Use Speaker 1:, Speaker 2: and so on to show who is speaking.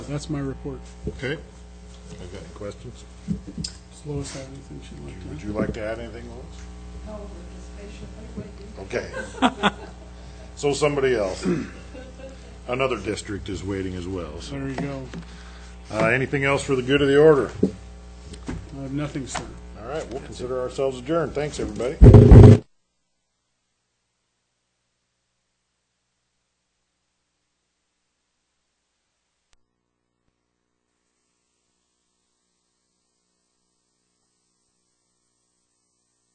Speaker 1: that's my report.
Speaker 2: Okay. I've got any questions?
Speaker 1: Does Lois have anything she'd like to add?
Speaker 2: Would you like to add anything, Lois?
Speaker 3: No, we're just patient, wait, wait,
Speaker 2: Okay. So somebody else, another district is waiting as well. So,
Speaker 1: There you go.
Speaker 2: uh, anything else for the good of the order?
Speaker 1: I have nothing, sir.
Speaker 2: All right, we'll consider ourselves adjourned. Thanks, everybody.